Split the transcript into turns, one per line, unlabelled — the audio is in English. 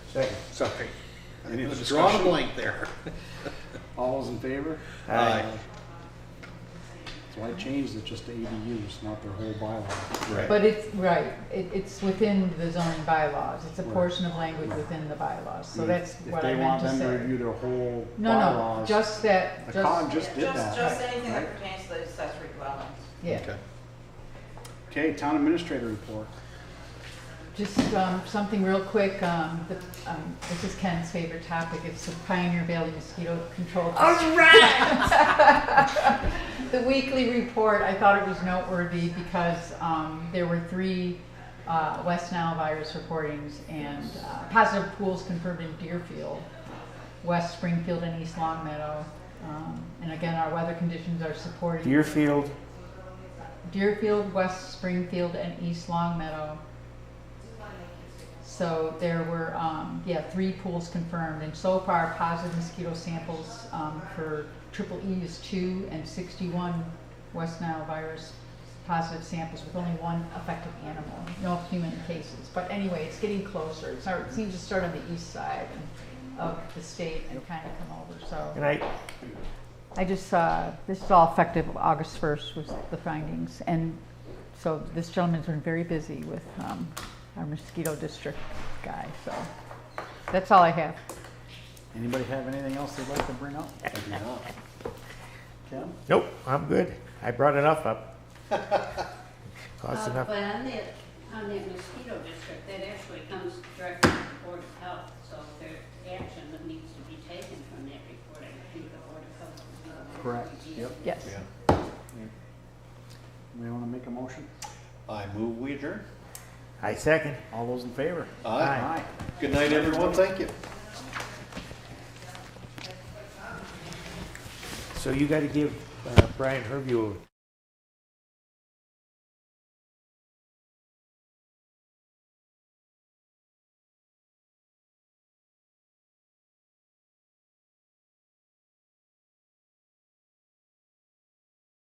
Second.
Sorry.
Any other
Drawn a
discussion?
blank there.
All those in favor?
Aye.
So I changed it just to ADUs, not their whole bylaw.
Right.
But it's, right, it, it's within the zoning bylaws, it's a
Right. Mm.
portion of language within the bylaws, so that's
If-
what I meant to
If they want them to
say.
review their whole
No, no,
bylaws.
just that,
The con
just,
just did
Just,
that.
just anything
right?
that pertains to the accessory dwellings.
yeah,
Okay.
Okay, town administrator report.
just, um, something real quick, um, the, um, this is Ken's favorite topic, it's the Pioneer Valley Mosquito Control. The weekly report, I thought it was noteworthy because um, there were three uh, West Nile virus reportings and uh, positive pools confirmed in Deerfield, West Springfield, and East Longmeadow. Um, and again, our weather conditions are supporting
Deerfield,
Deerfield, West Springfield, and East Longmeadow. So there were, um, yeah, three pools confirmed, and so far, positive mosquito samples, um, for triple E is two, and sixty-one West Nile virus positive samples with only one affected animal, no human cases. But anyway, it's getting closer, it's, our- it seems to start on the east side and- of the state and kind of come over, so.
and I,
I just, uh, this is all effective August 1st was the findings. And so this gentleman's been very busy with um, our mosquito district guy, so that's all I have.
Anybody have anything else they'd like to bring up? I do not. Kim?
nope, I'm good. I brought enough up. Cost
Uh,
enough.
But on the, on the mosquito district, that actually comes directly from the Board of Health, so if there's action that needs to be taken from that report, I think the Board of Health. is gonna have to
Correct,
review.
yep.
Yes.
Anybody want to make a motion?
I move we adjourn.
I second.
All those in favor?
Aye. Good night, everyone. Thank you.
So you gotta give uh, Brian Hervey a